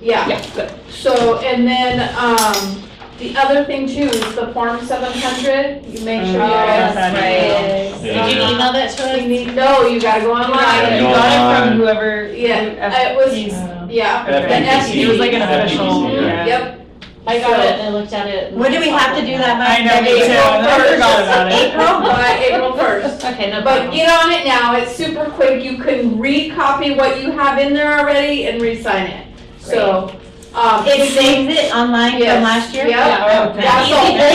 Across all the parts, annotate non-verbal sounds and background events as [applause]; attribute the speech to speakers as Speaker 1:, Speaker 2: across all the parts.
Speaker 1: yeah.
Speaker 2: Yeah, good.
Speaker 1: So, and then, um, the other thing too is the Form seven hundred, you make sure you
Speaker 2: Oh,
Speaker 1: guys.
Speaker 2: that's
Speaker 3: right.
Speaker 4: Yeah.
Speaker 3: Did you email that to us?
Speaker 1: You need, no, you gotta go
Speaker 4: gotta
Speaker 1: online.
Speaker 4: go
Speaker 3: You got it
Speaker 4: online.
Speaker 3: from whoever.
Speaker 1: Yeah, it was- Yeah,
Speaker 4: FPC.
Speaker 3: It was like an official,
Speaker 4: FPC,
Speaker 3: yeah.
Speaker 1: yep.
Speaker 3: I got it, I looked at it.
Speaker 5: When do we have to do that by?
Speaker 2: I know, me too, and I forgot about it.
Speaker 5: April?
Speaker 1: By [laughs] April first.
Speaker 3: Okay, no
Speaker 1: But
Speaker 3: problem.
Speaker 1: get on it now, it's super quick, you can recopy what you have in there already and re-sign it. So, um.
Speaker 5: It saves it online from
Speaker 1: Yes.
Speaker 5: last year?
Speaker 1: Yep.
Speaker 2: Yeah, okay.
Speaker 1: That's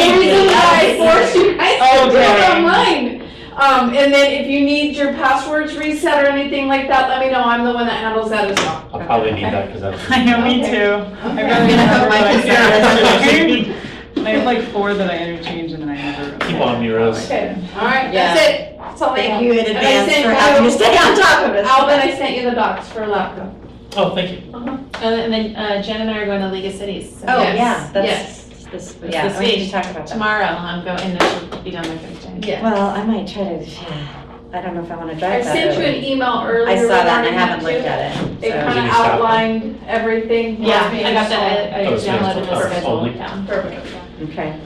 Speaker 1: the whole
Speaker 5: Easy peasy. Oh,
Speaker 1: reason why I forced you guys to do it
Speaker 2: Okay.
Speaker 1: online. Um, and then if you need your passwords reset or anything like that, let me know, I'm the one that handles that as well.
Speaker 4: I'll probably need that because that's.
Speaker 2: I [laughs] know, me
Speaker 1: Okay.
Speaker 2: too. I
Speaker 5: I'm
Speaker 2: really
Speaker 5: gonna
Speaker 2: never
Speaker 5: [laughs]
Speaker 2: [laughs]
Speaker 5: put my
Speaker 2: realized
Speaker 4: computer
Speaker 2: that. I have like four that I interchange and then I never.
Speaker 4: Keep on me, Rose.
Speaker 1: Okay, alright,
Speaker 3: Yeah.
Speaker 1: that's it, that's all I have.
Speaker 5: Thank you in
Speaker 1: And I
Speaker 5: advance
Speaker 1: sent
Speaker 5: for having to stay on top of it.
Speaker 1: Alvin, I sent you the docs for Lapco.
Speaker 4: Oh, thank you.
Speaker 3: And then uh, Jen and I are going to League of Cities. so
Speaker 5: Oh,
Speaker 1: Yes,
Speaker 5: yeah,
Speaker 1: yes.
Speaker 5: that's, this,
Speaker 3: It's
Speaker 5: yeah,
Speaker 3: this
Speaker 5: we need
Speaker 3: week.
Speaker 5: to talk about that.
Speaker 3: Tomorrow, I'm going, and then she'll be down there Thursday.
Speaker 1: Yeah.
Speaker 5: Well, I might try to, yeah, I don't know if I want to
Speaker 1: I
Speaker 5: drive that
Speaker 1: sent you
Speaker 5: early.
Speaker 1: an email earlier.
Speaker 5: I saw that and
Speaker 1: regarding
Speaker 5: I
Speaker 1: too.
Speaker 5: haven't looked at
Speaker 1: It
Speaker 5: it, so.
Speaker 1: kind
Speaker 4: Did
Speaker 1: of
Speaker 4: you stop it?
Speaker 1: outlined everything.
Speaker 3: Yeah, I got that, I I
Speaker 4: Oh, it's next
Speaker 3: downloaded
Speaker 4: month.
Speaker 3: the schedule.
Speaker 4: Only.
Speaker 3: yeah.
Speaker 1: Perfect.
Speaker 5: Okay,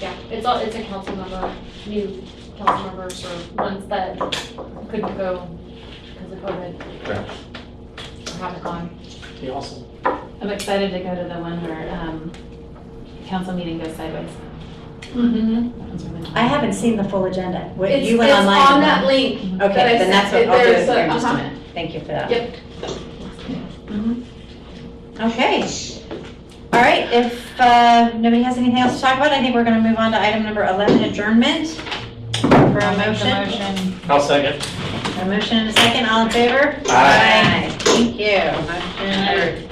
Speaker 6: Yeah, it's all, it's a council member, new council members or ones that couldn't go because of
Speaker 4: Right.
Speaker 6: COVID. Or haven't gone.
Speaker 4: Okay, awesome.
Speaker 3: I'm excited to go to the one where um, council meeting goes sideways.
Speaker 1: Mhm.
Speaker 3: That one's really fun.
Speaker 5: I haven't seen the full agenda. What-
Speaker 1: It's,
Speaker 5: Mm-hmm. You
Speaker 1: it's
Speaker 5: went online?
Speaker 1: on
Speaker 5: didn't
Speaker 1: that link.
Speaker 5: you? Okay,
Speaker 1: that I
Speaker 5: then that's what
Speaker 1: sent.
Speaker 5: I'll do
Speaker 1: There's a-
Speaker 5: here in just a
Speaker 1: uh-huh.
Speaker 5: minute. Thank you for that. Mm-hmm.
Speaker 1: Yep.
Speaker 5: Okay. All right, if uh, nobody has anything else to talk about, I think we're going to move on to item number 11, adjournment. For a motion,
Speaker 4: I'll second.
Speaker 5: a motion and a second, all in favor?
Speaker 4: Aye.
Speaker 5: Aye. Thank you. Motion carried.